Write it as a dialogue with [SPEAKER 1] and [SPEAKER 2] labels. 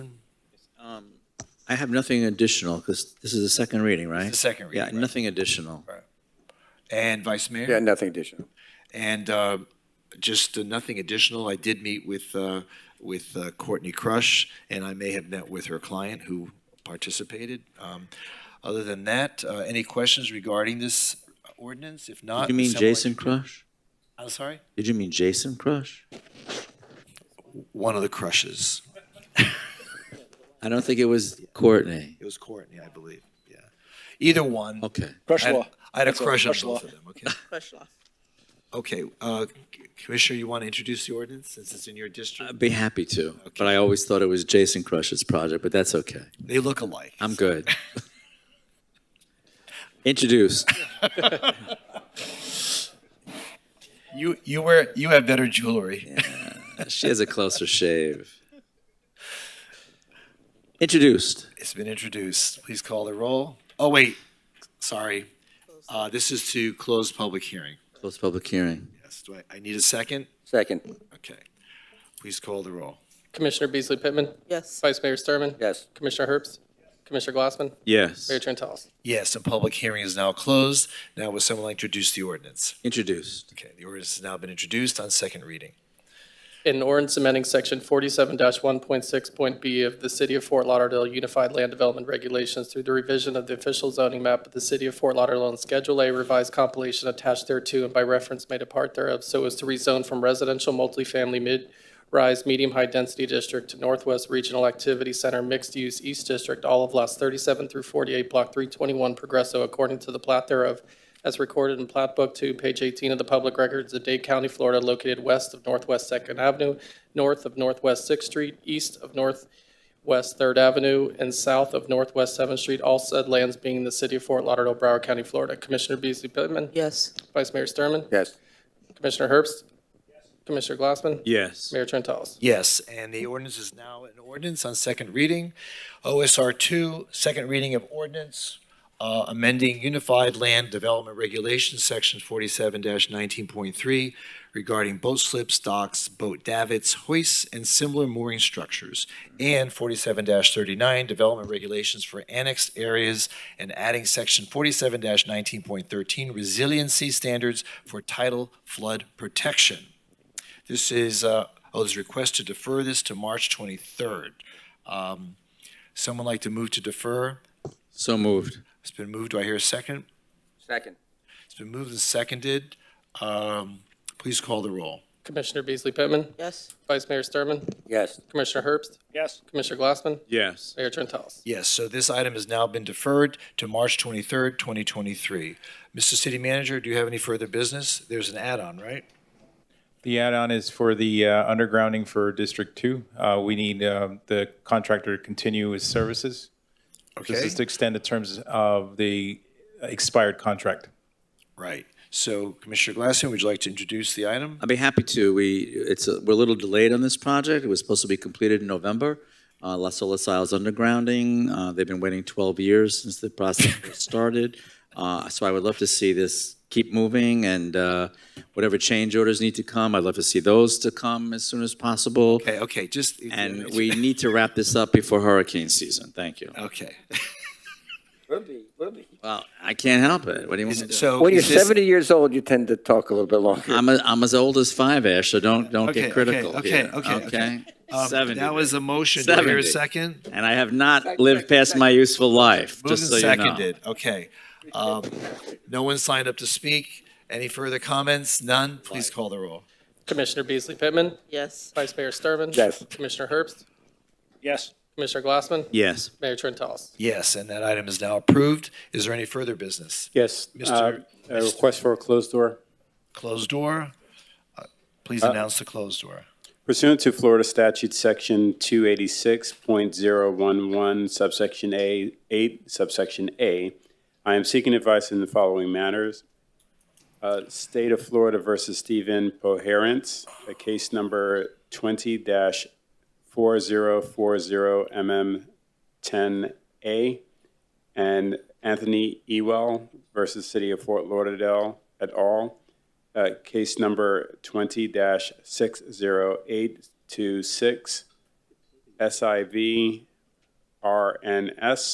[SPEAKER 1] I have nothing additional, because this is the second reading, right?
[SPEAKER 2] the second reading,
[SPEAKER 1] Yeah,
[SPEAKER 2] right.
[SPEAKER 1] nothing additional.
[SPEAKER 2] And Vice Mayor?
[SPEAKER 3] Yeah, nothing additional.
[SPEAKER 2] And uh, just uh, nothing additional, I did meet with, uh, with uh, Courtney Crush, and I may have met with her client who participated. Um, Other than that, uh, any questions regarding this ordinance? If not.
[SPEAKER 1] Did you mean
[SPEAKER 2] someone-
[SPEAKER 1] Jason Crush?
[SPEAKER 2] I'm sorry?
[SPEAKER 1] Did you mean Jason Crush?
[SPEAKER 2] One of the Crushes.
[SPEAKER 1] I don't think it was Courtney.
[SPEAKER 2] It was Courtney, I believe, yeah. Either one.
[SPEAKER 1] Okay.
[SPEAKER 2] I had-
[SPEAKER 3] Crushlaw.
[SPEAKER 2] I had a
[SPEAKER 3] That's all,
[SPEAKER 2] crush on
[SPEAKER 3] Crushlaw.
[SPEAKER 2] both of them, okay? Okay, uh, C- Commissioner, you want to introduce the ordinance since it's in your district?
[SPEAKER 1] I'd be happy to, but I always thought it was Jason Crush's project, but that's okay.
[SPEAKER 2] They look alike.
[SPEAKER 1] I'm good. Introduce.
[SPEAKER 2] You, you wear, you have better jewelry.
[SPEAKER 1] She has a closer shave. Introduced.
[SPEAKER 2] It's been introduced. Please call the roll. Oh, wait, sorry. Uh, This is to close public hearing.
[SPEAKER 1] Close public hearing.
[SPEAKER 2] Yes, do I, I need a second?
[SPEAKER 3] Second,
[SPEAKER 2] Okay. Please call the roll.
[SPEAKER 4] Commissioner Beasley Pittman,
[SPEAKER 5] Yes.
[SPEAKER 4] Vice Mayor Sturman,
[SPEAKER 3] yes.
[SPEAKER 4] Commissioner Herbst, Commissioner Glassman,
[SPEAKER 1] Yes.
[SPEAKER 4] Mayor Trentalis.
[SPEAKER 2] Yes, the public hearing is now closed. Now would someone like to introduce the ordinance?
[SPEAKER 1] Introduced.
[SPEAKER 2] Okay, the ordinance has now been introduced on second reading.
[SPEAKER 4] An ordinance amending section forty-seven one point six point B of the City of Fort Lauderdale Unified Land Development Regulations through the revision of the official zoning map of the City of Fort Lauderdale and Schedule A revised compilation attached thereto and by reference made a part thereof so as to rezone from residential multifamily mid-rise, medium-high density district to Northwest Regional Activity Center mixed-use East District, all of lots thirty-seven through forty-eight, block three twenty-one, Progresso, according to the plat thereof as recorded in Plat Book 2, page 18 of the Public Records of Dade County, Florida, located west of Northwest Second Avenue, north of Northwest Sixth Street, east of Northwest Third Avenue, and south of Northwest Seventh Street, all said lands being the city of Fort Lauderdale, Broward County, Florida. Commissioner Beasley Pittman,
[SPEAKER 5] Yes.
[SPEAKER 4] Vice Mayor Sturman,
[SPEAKER 3] Yes.
[SPEAKER 4] Commissioner Herbst, Commissioner Glassman,
[SPEAKER 1] Yes.
[SPEAKER 4] Mayor Trentalis.
[SPEAKER 2] Yes, and the ordinance is now an ordinance on second reading. OSR two, second reading of ordinance, uh, amending Unified Land Development Regulations, section forty-seven nineteen point three, regarding boat slips, docks, boat davits, hoists, and similar mooring structures, and forty-seven thirty-nine, development regulations for annexed areas, and adding section forty-seven nineteen point thirteen, resiliency standards for tidal flood protection. This is, uh, oh, there's a request to defer this to March 23rd. Um, Someone like to move to defer?
[SPEAKER 1] So moved.
[SPEAKER 2] It's been moved, do I hear a second?
[SPEAKER 3] Second,
[SPEAKER 2] It's been moved and seconded. Um, Please call the roll.
[SPEAKER 4] Commissioner Beasley Pittman,
[SPEAKER 5] Yes.
[SPEAKER 4] Vice Mayor Sturman,
[SPEAKER 3] yes.
[SPEAKER 4] Commissioner Herbst,
[SPEAKER 3] Yes.
[SPEAKER 4] Commissioner Glassman,
[SPEAKER 1] Yes.
[SPEAKER 4] Mayor Trentalis.
[SPEAKER 2] Yes, so this item has now been deferred to March 23rd, 2023. Mr. City Manager, do you have any further business? There's an add-on, right?
[SPEAKER 6] The add-on is for the uh, undergrounding for District Two. Uh, We need uh, the contractor to continue his services. This
[SPEAKER 2] Okay,
[SPEAKER 6] is to extend the terms of the expired contract.
[SPEAKER 2] right. So Commissioner Glassman, would you like to introduce the item?
[SPEAKER 1] I'd be happy to. We, it's, a- we're a little delayed on this project. It was supposed to be completed in November. Uh, Las Olas Isles undergrounding, uh, they've been waiting 12 years since the process was started. Uh, so I would love to see this keep moving and, uh, whatever change orders need to come, I'd love to see those to come as soon as possible.
[SPEAKER 2] Okay, okay, just. uh,
[SPEAKER 1] And we need to wrap this up before hurricane season. Thank you.
[SPEAKER 2] Okay.
[SPEAKER 3] Will be, will be.
[SPEAKER 1] Well, I can't help it. What do you want me to do?
[SPEAKER 2] So.
[SPEAKER 3] When you're
[SPEAKER 2] is this-
[SPEAKER 3] 70 years old, you tend to talk a little bit longer.
[SPEAKER 1] I'm, a, I'm as old as five, Ash, so don't, don't
[SPEAKER 2] Okay,
[SPEAKER 1] get
[SPEAKER 2] okay,
[SPEAKER 1] critical
[SPEAKER 2] okay,
[SPEAKER 1] here,
[SPEAKER 2] okay, okay. Um,
[SPEAKER 1] 70.
[SPEAKER 2] That was a motion. Do I hear a
[SPEAKER 1] 70.
[SPEAKER 2] second?
[SPEAKER 1] and I have not lived past my useful life,
[SPEAKER 2] Moved
[SPEAKER 1] just so
[SPEAKER 2] and
[SPEAKER 1] you know.
[SPEAKER 2] seconded. Okay. Um, No one signed up to speak. Any further comments? None? Please call the roll.
[SPEAKER 4] Commissioner Beasley Pittman,
[SPEAKER 5] Yes.
[SPEAKER 4] Vice Mayor Sturman.
[SPEAKER 3] Yes.
[SPEAKER 4] Commissioner Herbst,
[SPEAKER 3] Yes.
[SPEAKER 4] Commissioner Glassman,
[SPEAKER 1] Yes,
[SPEAKER 4] Mayor Trentalis.
[SPEAKER 2] Yes, and that item is now approved. Is there any further business?
[SPEAKER 7] Yes, uh,
[SPEAKER 2] Mr.
[SPEAKER 7] a request for a closed door.
[SPEAKER 2] Closed door? Uh, Please announce the closed door.
[SPEAKER 7] Pursuant to Florida Statute Section 286.011 subsection A, 8 subsection A, I am seeking advice in the following matters. Uh, State of Florida versus Stephen Poherence, a case number 20-4040MM10A, and Anthony Ewell versus City of Fort Lauderdale et al., uh, case number 20-60826, SIV RNS